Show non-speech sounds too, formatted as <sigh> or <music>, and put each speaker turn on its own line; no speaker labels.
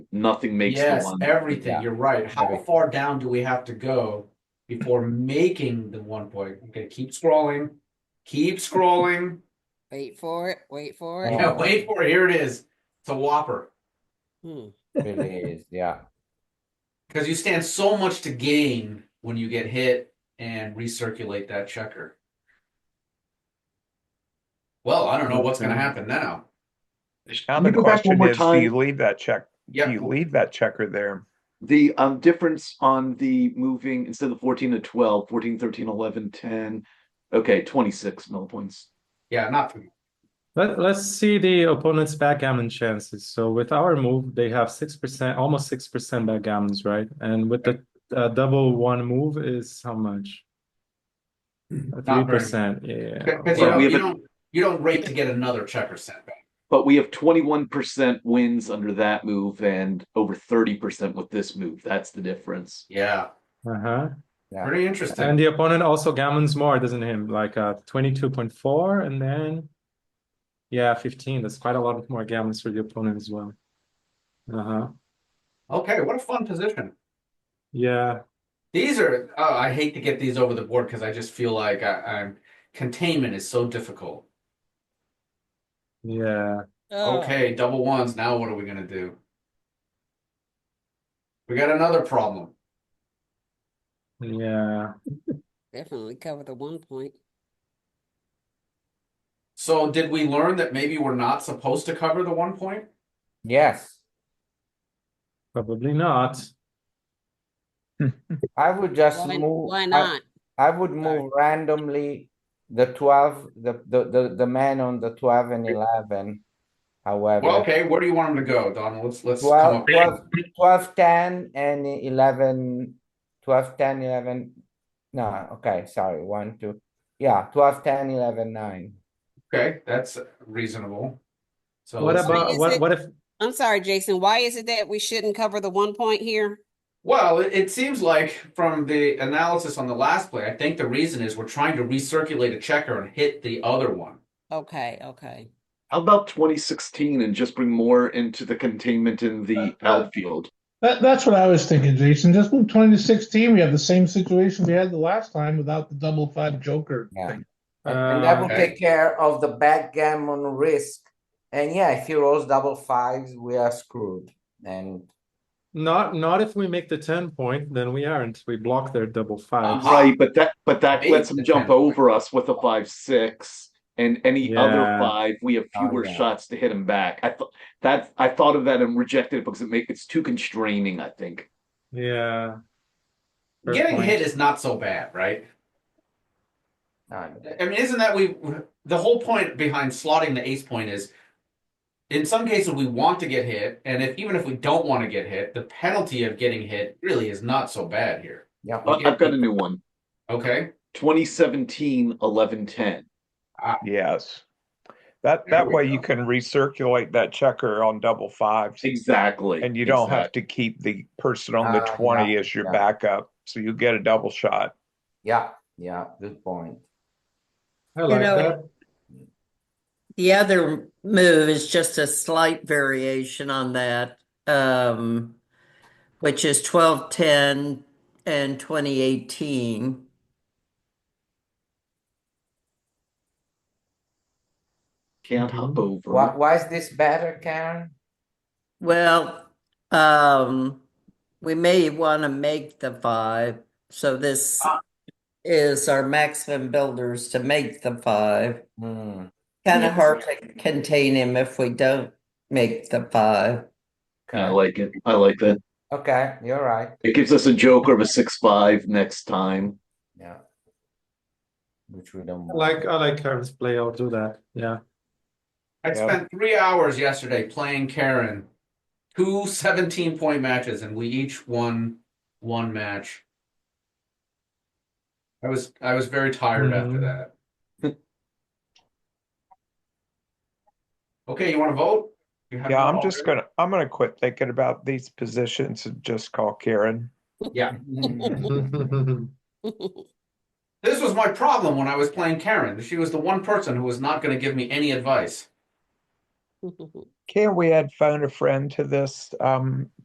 nothing makes
yes, er,
the one.
everything.
Yeah.
You're right. How
Right.
far down do we have to go before making the one point? Okay, keep scrolling, keep scrolling. <laughs>
Wait for it. Wait for it.
Yeah, wait for it. Here it is. It's a whopper
Hmm.
really is, yeah.
because you stand so much to gain when you get hit and recirculate that checker. Well, I don't know what's going to happen now.
Now
Can you
the
go back one
question
more
is, do
time?
you leave that check, do
Yeah,
you leave that checker there?
The um difference on the moving instead of 14 to 12, 14, 13, 11, 10. Okay, 26 millipoints.
yeah, not
Let, let's see the opponent's backgammon chances. So with our move, they have 6%, almost 6% backgammons, right? And with the uh, double one move is how much? Uh,
very
3%, yeah.
Well,
because you, don't,
we have
you
a-
don't you don't rate to get another checker sent back.
But we have 21% wins under that move and over 30% with this move. That's the difference.
Yeah,
Uh-huh.
pretty interesting.
And the opponent also gammons more, doesn't him? Like uh, 22.4 and then, yeah, 15. That's quite a lot more gammons for the opponent as well. Uh-huh.
okay, what a fun position.
Yeah.
These are oh, I hate to get these over the board because I just feel like I, I'm containment is so difficult.
Yeah.
Oh,
Okay, double ones. Now what are we gonna do? We got another problem.
Yeah.
Definitely cover the one point.
So did we learn that maybe we're not supposed to cover the one point?
Yes,
Probably not.
I would just
Why,
move.
why
I-
not?
I would move randomly the twelve, the, the, the, the man on the twelve and eleven.
Well,
However,
okay, where do you want him to go, Donald? Let's let's come
twelve,
up.
twelve, twelve, ten and eleven, twelve, ten, eleven. No, okay, sorry, one, two, yeah, twelve, ten, eleven, nine.
Okay, that's reasonable. So
What
let's see.
about
is
what
it-
what if
I'm sorry, Jason. Why is it that we shouldn't cover the one point here?
Well, it, it seems like from the analysis on the last play, I think the reason is we're trying to recirculate a checker and hit the other one.
Okay, okay.
How about 2016 and just bring more into the containment in the outfield?
That, that's what I was thinking, Jason. Just move twenty to sixteen. We have the same situation we had the last time without the double five joker
Yeah.
thing.
And- And that
Uh,
will
okay.
take care of the backgammon risk. And yeah, if he rolls double fives, we are screwed. And
not not if we make the ten point, then we aren't. We block their double fives.
Uh-huh.
Right, but that but that
Maybe
lets them
it's
jump
10.
over us with a five six and any other
Yeah.
five we have
Oh,
fewer
yeah.
shots to hit them back. I thought that I thought of that and rejected it because it make it's too constraining, I think.
Yeah. Fair
Getting
point.
hit is not so bad, right?
uh,
I mean, isn't that we the whole point behind slotting the ace point is in some cases we want to get hit, and if even if we don't want to get hit, the penalty of getting hit really is not so bad here.
yeah,
But I've got a new one.
Okay.
2017 11 10.
Yes. That,
There
that
we
way you
go.
can recirculate that checker on double fives.
Exactly.
And you don't have to keep the person on the
Ah, yeah,
twenty as your
yeah.
backup, so you get a double shot.
yeah, yeah, good point.
I like
know,
that.
The other move is just a slight variation on that, um, which is twelve, ten, and twenty eighteen.
Can't hop over.
Why, why is this better, Karen?
Well, um, we may want to make the five, so this
Ah.
is our maximum builders to make the five.
Hmm,
Kind of
Yes.
hard to contain him if we don't make the five.
I
okay,
like it. I like that.
okay, you're right,
It gives us a joker of a six five next time.
yeah. Which we don't.
I
want.
like I like Karen's play. I'll do that. Yeah. <laughs>
I
Yeah.
spent three hours yesterday playing Karen, two 17 point matches, and we each won one match. I was I was very tired after
Mm-hmm.
Mhm.
that. okay, you want to vote? You have
Yeah,
one
I'm just
already?
gonna, I'm gonna quit thinking about these positions and just call Karen.
This was my problem when I was playing Karen. She was the one person who was not going to give me any advice.
<laughs>
Can we add phone a friend to this, um,